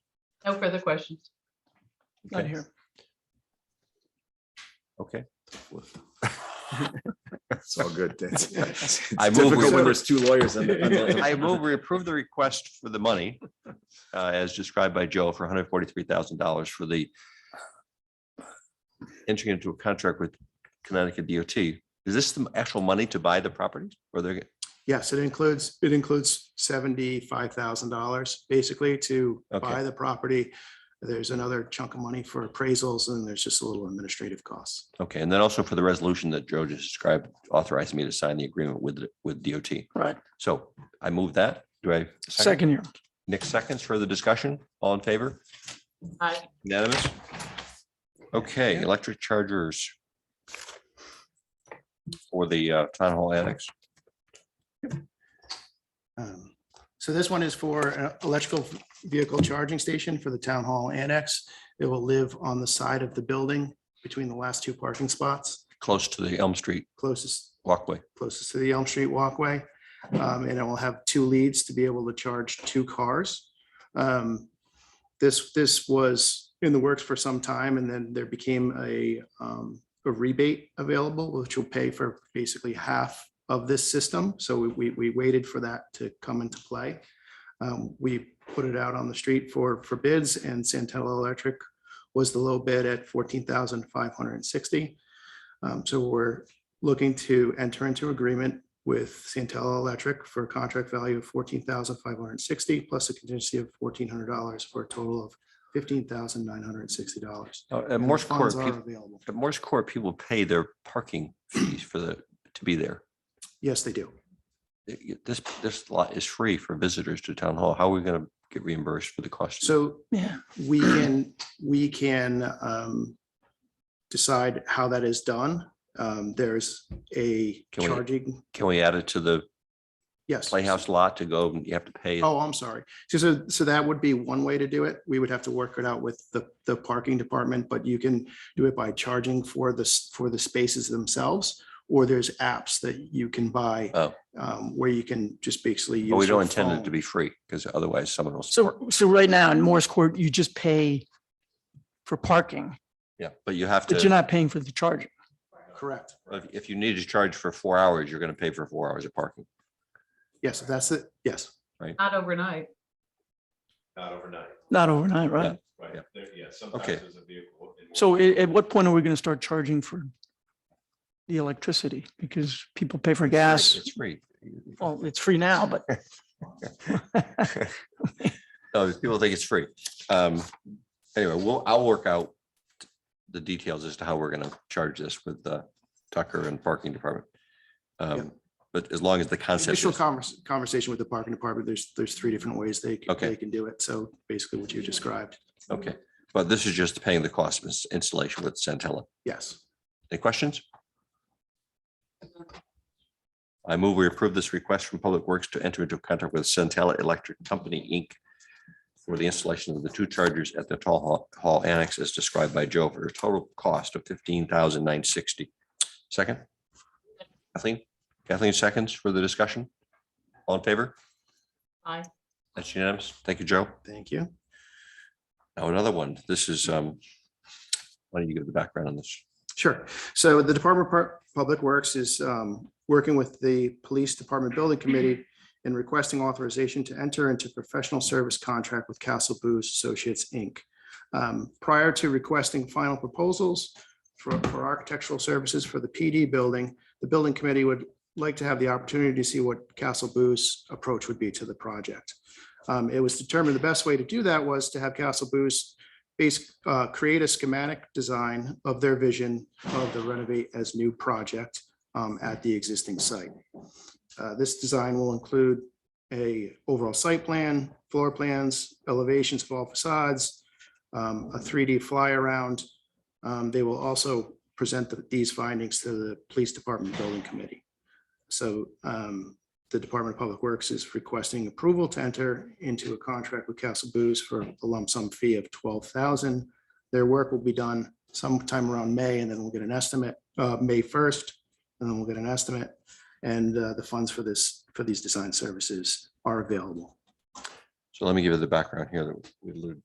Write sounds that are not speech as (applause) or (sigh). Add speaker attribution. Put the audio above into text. Speaker 1: No further questions.
Speaker 2: Not
Speaker 3: Okay.
Speaker 2: here.
Speaker 3: (laughs) Okay.
Speaker 4: It's all good. It's- it's
Speaker 3: I move we-
Speaker 4: difficult When there's two lawyers. in the- in
Speaker 3: (laughs)
Speaker 4: the-
Speaker 3: I move we approve the request for the money uh, as described by Joe for hundred forty-three thousand dollars for the entering into a contract with Connecticut DOT. Is this the actual money to buy the properties or they're?
Speaker 5: Yes, it includes, it includes seventy-five thousand dollars basically to
Speaker 3: Okay.
Speaker 5: buy the property. There's another chunk of money for appraisals and there's just a little administrative costs.
Speaker 3: Okay, and then also for the resolution that Joe just described, authorized me to sign the agreement with, with DOT.
Speaker 2: Right.
Speaker 3: So I move that. Do I?
Speaker 2: Second here.
Speaker 3: Nick seconds for the discussion. All in favor?
Speaker 1: Aye.
Speaker 3: Unanimous? Okay, electric chargers for the uh, town hall annex.
Speaker 5: Um, So this one is for an electrical vehicle charging station for the town hall annex. It will live on the side of the building between the last two parking spots
Speaker 3: close to the Elm Street
Speaker 5: closest,
Speaker 3: walkway.
Speaker 5: closest to the Elm Street walkway. Um, And it will have two leads to be able to charge two cars. Um, This, this was in the works for some time and then there became a um, a rebate available, which will pay for basically half of this system. So we- we, we waited for that to come into play. Um, We put it out on the street for, for bids and Santella Electric was the low bid at fourteen thousand five hundred and sixty. Um, So we're looking to enter into agreement with Santella Electric for a contract value of fourteen thousand five hundred and sixty plus a contingency of fourteen hundred dollars for a total of fifteen thousand nine hundred and sixty dollars.
Speaker 3: Uh, At Morse Court,
Speaker 5: Funds are
Speaker 3: peop-
Speaker 5: available.
Speaker 3: at Morse Court, people pay their parking fees for the, to be there.
Speaker 5: Yes, they do.
Speaker 3: It- it- This, this lot is free for visitors to town hall. How are we going to get reimbursed for the cost?
Speaker 5: So
Speaker 2: Yeah.
Speaker 5: we can, we can um, decide how that is done. Um, There's a
Speaker 3: Can we-
Speaker 5: charging,
Speaker 3: Can we add it to the
Speaker 5: yes.
Speaker 3: playhouse lot to go and you have to pay?
Speaker 5: Oh, I'm sorry. So- So, so that would be one way to do it. We would have to work it out with the, the parking department, but you can do it by charging for the, s- for the spaces themselves. Or there's apps that you can buy
Speaker 3: Oh.
Speaker 5: um, where you can just basically.
Speaker 3: But we
Speaker 5: use your
Speaker 3: don't intend it to
Speaker 5: phone.
Speaker 3: be free because otherwise someone will.
Speaker 2: So, so right now in Morris Court, you just pay for parking,
Speaker 3: Yeah, but you have
Speaker 2: but you're
Speaker 3: to,
Speaker 2: not paying for the charger.
Speaker 5: Correct.
Speaker 3: if- if you need to charge for four hours, you're going to pay for four hours of parking.
Speaker 5: Yes, that's it. Yes.
Speaker 1: Not overnight.
Speaker 6: Not overnight,
Speaker 2: Not overnight,
Speaker 3: Yeah.
Speaker 2: right?
Speaker 6: right?
Speaker 3: Yeah.
Speaker 6: There- Yeah, sometimes
Speaker 3: Okay.
Speaker 6: there's a vehicle. in-
Speaker 2: So at, at what point are we going to start charging for the electricity? Because people pay for
Speaker 3: It's
Speaker 2: gas.
Speaker 3: free. It's free.
Speaker 2: Well, it's free now, but
Speaker 3: (laughs) Oh, people think it's free. Um, anyway, we'll, I'll work out the details as to how we're gonna charge this with uh Tucker and parking department. Um, but as long as the concept
Speaker 5: Initial
Speaker 3: is,
Speaker 5: convers- conversation with the parking department, there's, there's three different ways they, c-
Speaker 3: Okay.
Speaker 5: they can do it. So basically what you described,
Speaker 3: okay, but this is just paying the cost of ins- installation with Centella.
Speaker 5: yes.
Speaker 3: Any questions? I move we approve this request from Public Works to enter into a contract with Centella Electric Company, Inc. For the installation of the two chargers at the Tall Hall- Hall Annex as described by Joe for a total cost of fifteen thousand nine sixty. Second? Kathleen? Kathleen seconds for the discussion? All in favor?
Speaker 1: Aye.
Speaker 3: That's unanimous. Thank you, Joe.
Speaker 5: Thank you.
Speaker 3: Now another one. This is, um, why don't you give the background on this?
Speaker 5: Sure. So the Department of Pu- Public Works is um, working with the Police Department Building Committee in requesting authorization to enter into professional service contract with Castle Booze Associates, Inc. Um, Prior to requesting final proposals for, for architectural services for the PD building, the Building Committee would like to have the opportunity to see what Castle Booze approach would be to the project. Um, It was determined the best way to do that was to have Castle Booze base, uh, create a schematic design of their vision of the renovate as new project um, at the existing site. Uh, This design will include a overall site plan, floor plans, elevations of all facades, um, a 3D fly around. Um, They will also present the- these findings to the Police Department Building Committee. So um, the Department of Public Works is requesting approval to enter into a contract with Castle Booze for a lump sum fee of twelve thousand. Their work will be done sometime around May, and then we'll get an estimate, uh, May first, and then we'll get an estimate. And, uh, the funds for this, for these design services are available.
Speaker 3: So let me give you the background here that we alluded